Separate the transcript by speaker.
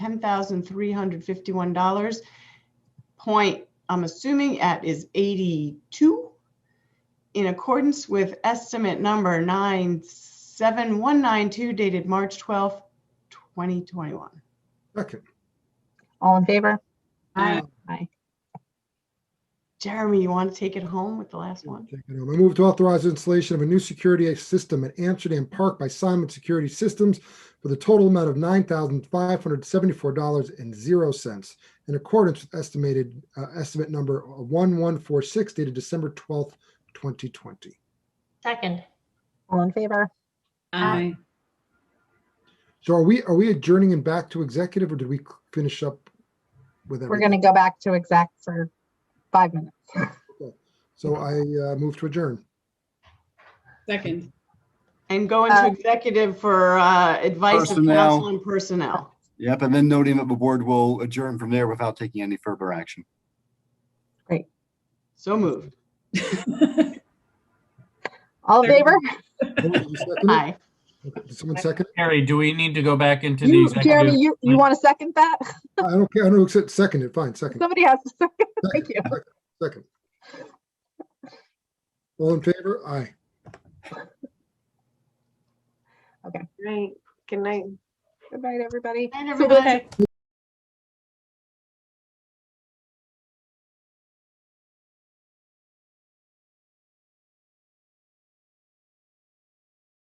Speaker 1: ten thousand three hundred fifty-one dollars. Point, I'm assuming at is eighty-two. In accordance with estimate number nine seven one nine two dated March twelfth, twenty twenty-one.
Speaker 2: Second.
Speaker 3: All in favor?
Speaker 1: Aye.
Speaker 3: Aye.
Speaker 1: Jeremy, you want to take it home with the last one?
Speaker 2: Take it home. I move to authorize installation of a new security system at Amsterdam Park by Simon Security Systems for the total amount of nine thousand five hundred seventy-four dollars and zero cents in accordance with estimated, uh, estimate number one one four six dated December twelfth, twenty twenty.
Speaker 4: Second.
Speaker 3: All in favor?
Speaker 4: Aye.
Speaker 2: So are we, are we adjourning and back to executive or did we finish up with
Speaker 3: We're
Speaker 2: everything?
Speaker 3: going to go back to exec for five minutes.
Speaker 2: So I, uh, move to adjourn.
Speaker 5: Second.
Speaker 1: And go into
Speaker 3: Uh,
Speaker 1: executive for uh, advice of
Speaker 6: Personnel.
Speaker 1: counsel and personnel.
Speaker 6: Yep, and then noting that the board will adjourn from there without taking any further action.
Speaker 1: So moved.
Speaker 3: All in favor?
Speaker 2: Did you second it?
Speaker 1: Aye.
Speaker 2: Did someone second? it?
Speaker 7: Harry, do we need to go back into the
Speaker 3: You,
Speaker 7: executive?
Speaker 3: Jeremy, you, you want to second that?
Speaker 2: I don't care. I don't accept, second it. Fine, second.
Speaker 3: Somebody has to second. Thank you.
Speaker 2: Second. All in favor? Aye.
Speaker 3: Good night, everybody.
Speaker 1: Night,
Speaker 3: So we'll-
Speaker 1: everybody.